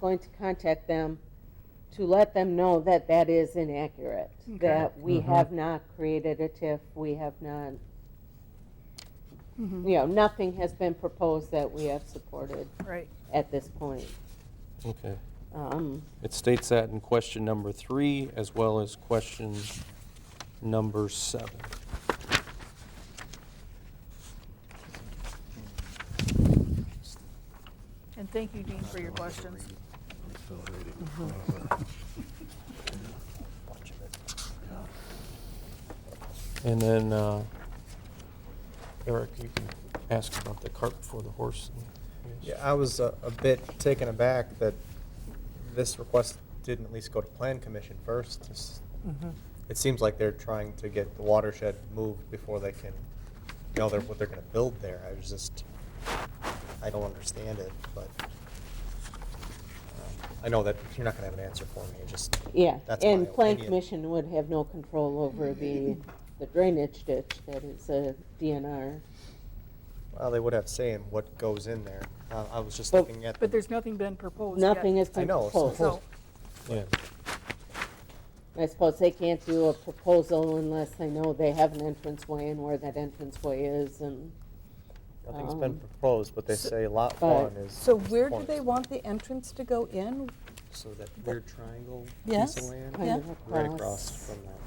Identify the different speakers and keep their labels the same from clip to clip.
Speaker 1: going to contact them to let them know that that is inaccurate, that we
Speaker 2: Mhm.
Speaker 1: have not created a TIF, we have not, you know, nothing has been proposed that we have supported
Speaker 3: Right.
Speaker 1: at this point.
Speaker 2: Okay.
Speaker 1: Um,
Speaker 2: It states that in question number three, as well as question number seven.
Speaker 3: And thank you, Dean, for your questions. Mm-hmm.
Speaker 2: And then, uh, Eric, you can ask about the cart before the horse. I guess.
Speaker 4: Yeah, I was uh, a, a bit taken aback that this request didn't at least go to Plan Commission first. It's- It seems like they're trying to get the watershed moved before they can, you know, they're, what they're gonna build there. I was just, I don't understand it, but um, I know that you're not gonna have an answer for me, it just.
Speaker 1: Yeah,
Speaker 4: that's my
Speaker 1: and Plan
Speaker 4: opinion.
Speaker 1: Commission would have no control over the, the drainage ditch that is a DNR.
Speaker 4: Well, they would have say in what goes in there. Uh, I was just
Speaker 1: But-
Speaker 4: looking at.
Speaker 3: But
Speaker 4: the-
Speaker 3: there's nothing been proposed yet.
Speaker 1: Nothing has
Speaker 4: I
Speaker 1: been
Speaker 4: know, it's
Speaker 1: proposed.
Speaker 4: not-
Speaker 3: So,
Speaker 2: Yeah,
Speaker 1: I suppose they can't do a proposal unless they know they have an entranceway and where that entranceway is and,
Speaker 4: Nothing's been
Speaker 1: um,
Speaker 4: proposed, but they
Speaker 5: so- uh,
Speaker 4: say lot
Speaker 1: but-
Speaker 4: one is.
Speaker 5: So
Speaker 4: is
Speaker 5: where do
Speaker 4: point.
Speaker 5: they want the entrance to go in?
Speaker 4: So that weird triangle piece
Speaker 5: Yes.
Speaker 4: of land?
Speaker 1: Kind of
Speaker 4: Right
Speaker 1: across.
Speaker 4: across from that.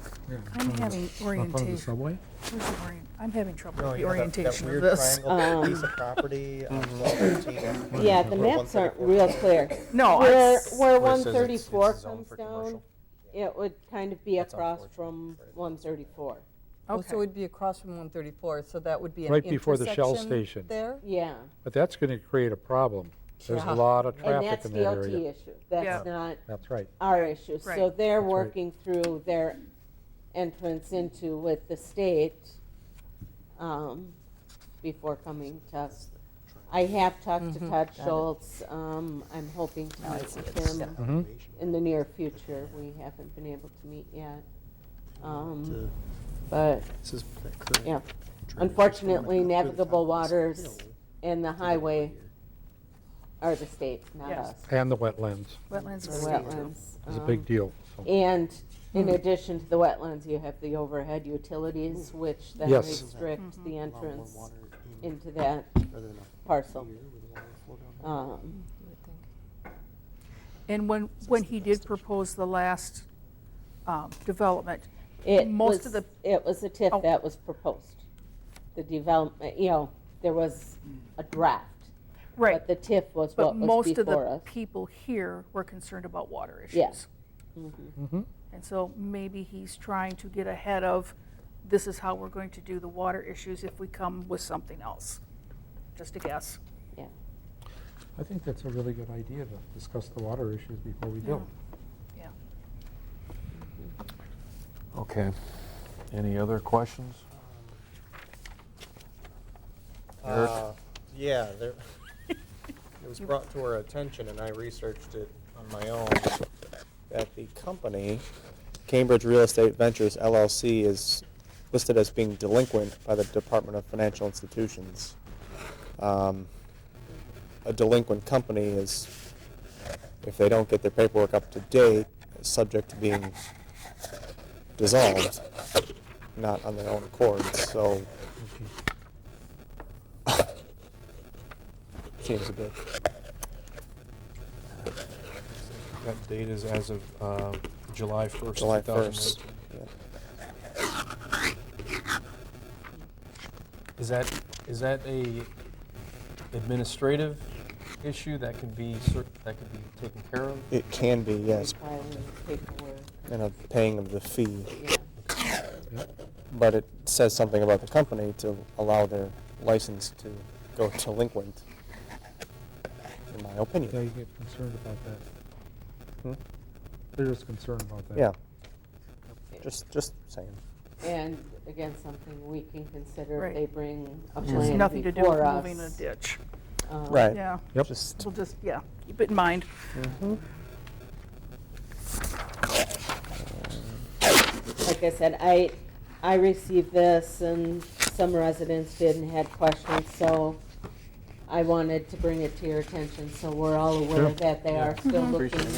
Speaker 3: I'm
Speaker 4: Mm-hmm.
Speaker 3: having
Speaker 6: the
Speaker 3: orientation.
Speaker 6: subway?
Speaker 3: where's the orient- I'm having trouble
Speaker 4: No,
Speaker 3: with the
Speaker 4: you know, Oh, that-
Speaker 3: orientation
Speaker 4: That
Speaker 3: of
Speaker 4: weird
Speaker 3: this.
Speaker 4: triangle piece
Speaker 1: Um, Mm-hmm.
Speaker 4: of property. on 1213.
Speaker 1: Yeah, the maps aren't real clear.
Speaker 3: No,
Speaker 1: Where,
Speaker 3: it's-
Speaker 1: where
Speaker 4: Oh, Where it says
Speaker 1: one
Speaker 4: it's-
Speaker 1: thirty-four
Speaker 4: it's a zone
Speaker 1: comes
Speaker 4: for
Speaker 1: down,
Speaker 4: commercial.
Speaker 1: it would kind of be
Speaker 4: That's
Speaker 1: across
Speaker 4: unfortunate,
Speaker 1: from
Speaker 4: I'm afraid.
Speaker 1: one thirty-four.
Speaker 5: Oh,
Speaker 3: Okay.
Speaker 5: So it'd be across from 134, so that would be an
Speaker 6: Right before the Shell
Speaker 5: intersection
Speaker 6: station.
Speaker 5: There?
Speaker 1: Yeah,
Speaker 6: But that's going to create a problem. There's
Speaker 5: Yeah.
Speaker 6: a lot of
Speaker 1: and that's
Speaker 6: traffic in that
Speaker 1: DOT
Speaker 6: area.
Speaker 1: issue. That's
Speaker 3: Yeah.
Speaker 1: not
Speaker 6: That's right.
Speaker 1: our issue. So
Speaker 3: Right.
Speaker 1: they're
Speaker 6: right.
Speaker 1: working through their entrance into with the state um, before coming to us. I have talked
Speaker 5: Mm-hmm.
Speaker 1: to Todd Schultz. Um, I'm hoping to
Speaker 5: Oh, I
Speaker 1: meet
Speaker 5: see it.
Speaker 1: with him
Speaker 5: Yeah.
Speaker 1: in the near future. We haven't been able to meet yet. Um, But, yeah, unfortunately, navigable waters and the highway are the state, not
Speaker 3: Yes.
Speaker 1: us.
Speaker 6: And the wetlands
Speaker 3: Wetlands.
Speaker 1: The
Speaker 3: are state.
Speaker 1: wetlands.
Speaker 6: is a
Speaker 1: um,
Speaker 6: big deal. so.
Speaker 1: And in
Speaker 3: Hmm.
Speaker 1: addition to the wetlands, you have the overhead
Speaker 3: Hmm.
Speaker 1: utilities, which then
Speaker 6: Yes.
Speaker 3: Mm-hmm.
Speaker 1: restrict the entrance into that
Speaker 4: mm,
Speaker 1: parcel. Um,
Speaker 3: And when, when he did propose the last um, development,
Speaker 1: It
Speaker 3: Most
Speaker 1: was,
Speaker 3: of the-
Speaker 1: it was a
Speaker 3: Oh.
Speaker 1: TIF that was proposed. The development, you know, there was a draft. But
Speaker 3: right,
Speaker 1: the TIF was
Speaker 3: but
Speaker 1: what was
Speaker 3: most of
Speaker 1: before
Speaker 3: the
Speaker 1: us.
Speaker 3: people here were concerned about water issues.
Speaker 1: Yeah.
Speaker 3: And so maybe he's trying to get ahead of, this is how we're going to do the water issues if we come with something else. Just a guess.
Speaker 1: Yeah.
Speaker 6: I think that's a really good idea to discuss the water issues before we build.
Speaker 7: Okay. Any other questions? Eric?
Speaker 4: Uh, Yeah, there, it was brought to our attention, and I researched it on my own, that the company, Cambridge Real Estate Ventures LLC, is listed as being delinquent by the Department of Financial Institutions. Um, A delinquent company is, if they don't get their paperwork up to date, is subject to being dissolved, not on their own accord, so seems a bit.
Speaker 2: that date is as of uh, July 1st.
Speaker 4: July
Speaker 2: 2019.
Speaker 4: first.
Speaker 2: Is that, is that a administrative issue that can be, cer- that could be taken care of?
Speaker 4: It can be, yes,
Speaker 1: Filing paperwork,
Speaker 4: and a paying of the fee,
Speaker 1: yeah.
Speaker 4: but it says something about the company to allow their license to go delinquent, in my
Speaker 6: Yeah,
Speaker 4: opinion.
Speaker 6: you get concerned about that.
Speaker 4: Hmm?
Speaker 6: There is concern about that.
Speaker 4: Yeah. Just, just saying.
Speaker 1: And again, something we can consider
Speaker 3: Right.
Speaker 1: if they bring a
Speaker 3: It has
Speaker 1: plan
Speaker 3: nothing to do with
Speaker 1: before us.
Speaker 3: moving a ditch.
Speaker 1: Um,
Speaker 4: Right.
Speaker 3: Yeah,
Speaker 6: Yep.
Speaker 4: Just, mm-hmm.
Speaker 3: we'll just, yeah, keep it in mind.
Speaker 1: like I said, I, I received this and some residents did and had questions, so I wanted to bring it to your attention, so we're all aware that they are still looking